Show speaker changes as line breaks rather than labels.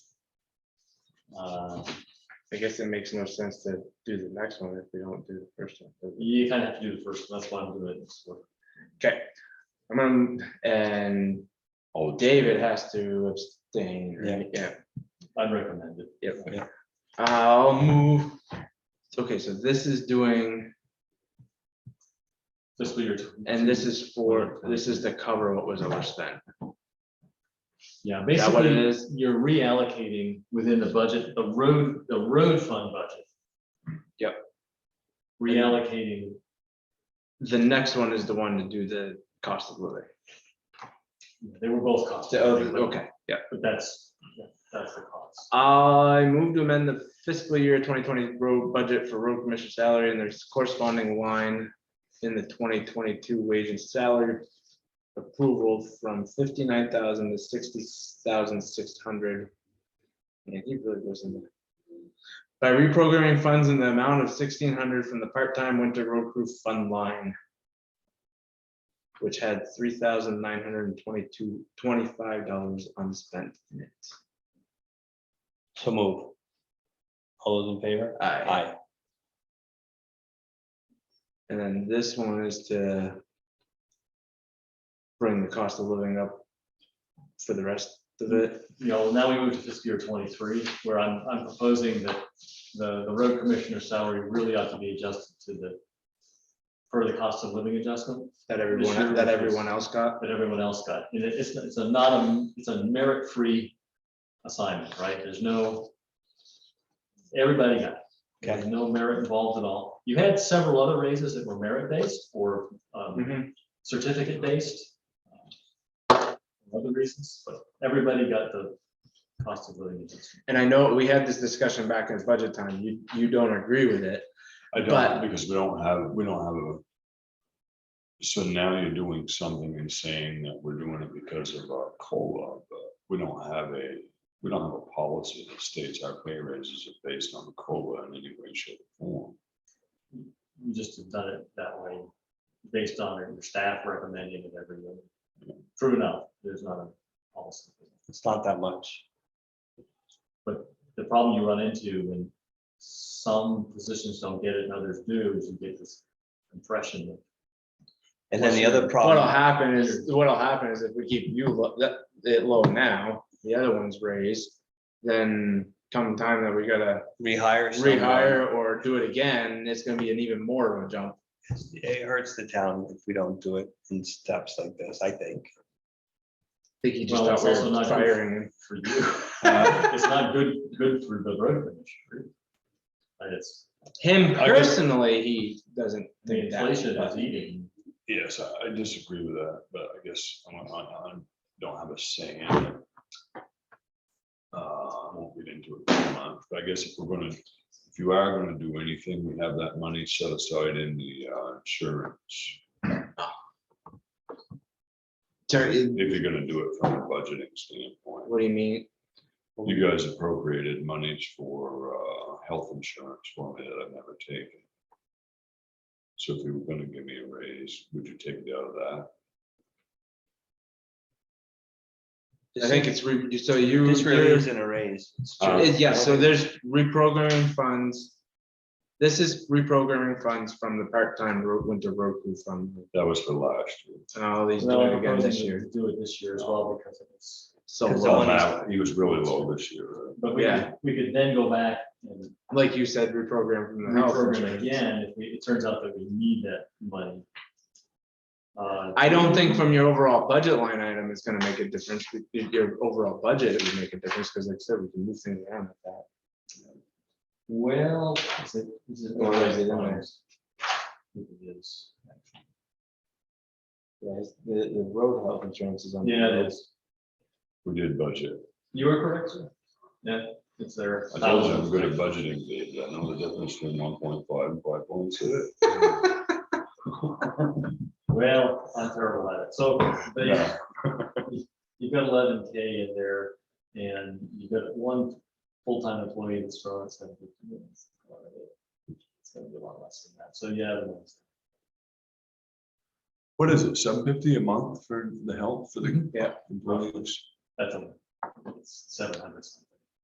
Uh,
I guess it makes no sense to do the next one if we don't do the first one. does it?
You kind of have to do the first, one. that's why I'm doing it this way.
Okay, I'm on, and
Oh,
David has to abstain, right? Yeah.
I'd recommend it.
Yep. I'll move. Okay, so this is doing,
Fiscal year.
and this is for, this is to cover what was overspent.
Yeah,
Is that what it
basically, you're reallocating within the budget, the road, the road fund budget.
Yep.
Reallocating,
The next one is the one to do the cost of living.
they were both costs.
So, Okay, yeah.
But that's, that's the cost.
I move to amend the fiscal year twenty twenty road budget for road commissioner salary and there's corresponding line in the twenty twenty-two wage and salary approval from fifty-nine thousand to sixty thousand six hundred. Man, he really goes in there. By reprogramming funds in the amount of sixteen hundred from the part-time winter road crew fund line, which had three thousand nine hundred and twenty-two, twenty-five dollars unspent in it.
so move. All those in favor?
Aye.
Aye.
And then this one is to bring the cost of living up for the rest of it.
You know, now we move to fiscal year twenty-three, where I'm, I'm proposing that the, the road commissioner's salary really ought to be adjusted to the, for the cost of living adjustment.
That
Sure.
everyone, that everyone else got.
that everyone else got. And it- it's, it's a not, a it's a merit-free assignment, right? There's no, everybody got it. There's no merit involved at all. You had several other raises that were merit-based or
Mm-hmm.
um, certificate-based. um, Other reasons, but everybody got the cost of living adjustment.
And I know we had this discussion back in budget time. You, you don't agree with it.
I
But-
don't, because we don't have, we don't have a. So now you're doing something and saying that we're doing it because of our COLA, but we don't have a, we don't have a policy that states our pay raises are based on COLA in any way, shape, or
You just have done it that way, based on your staff recommending it every year. True enough, there's not a policy.
It's not that much.
the problem you run into when some positions don't get it and others do is you get this impression that
And then the other
What'll
problem,
happen is, what'll happen is if we keep you lo- that, it low now, the other one's raised, then come time that we gotta
rehire. someone,
rehire or do it again, it's gonna be an even more of a jump.
It hurts the town if we don't do it in steps like this, I think.
I think he just
Well,
thought
it's
we
also
were
not-
firing him.
for you, uh, it's not good, good for the road commissioner. But it's,
Him
I just-
personally, he doesn't
the
think that.
inflation
but-
is eating.
Yes, I I disagree with that, but I guess I don't- I don't- don't have a say in it. Uh, I won't get into it too much, but I guess if we're gonna, if you are gonna do anything, we have that money set aside in the uh, insurance.
Terry,
If you're gonna do it from a budgeting standpoint,
what do you mean?
you guys appropriated monies for uh, health insurance for me that I've never taken. So if you were gonna give me a raise, would you take it out of that?
I think it's, re- so you.
This really
you're-
isn't a raise. It's
Uh,
just-
it- Yeah, so there's reprogramming funds. This is reprogramming funds from the part-time ro- winter road crew fund,
That was for last year.
and all these
Well,
doing
I'm
again this
proposing
year.
to Do it this year as well because it's,
So,
Cause
low.
all that-
Wow, He was really low this year. uh, right?
but we,
Yeah.
could- we could then go back and
like you said, reprogram from the health
reprogram
insurance.
again if we, it turns out that we need that money. Uh,
I don't think from your overall budget line item, it's gonna make a difference. With Your overall budget it would make a difference, because like I said, we can move things around with that.
Well, is it, is it?
Or is it in there?
It is.
Yeah, it's- the, the road health insurance is on.
Yeah, it is.
We did budget.
You are correct, sir. Yeah, it's there.
I told you I'm good at budgeting, Dave. but I know the difference between one point five and five point two.
Well, I'm terrible at it. So they, you've got eleven K in there and you've got one full-time employee that's from, it's gonna be. It's gonna be a lot less than that. So yeah. it was-
What is it, seven fifty a month for the help for the?
Yeah.
Employees.
That's a, it's seven hundred.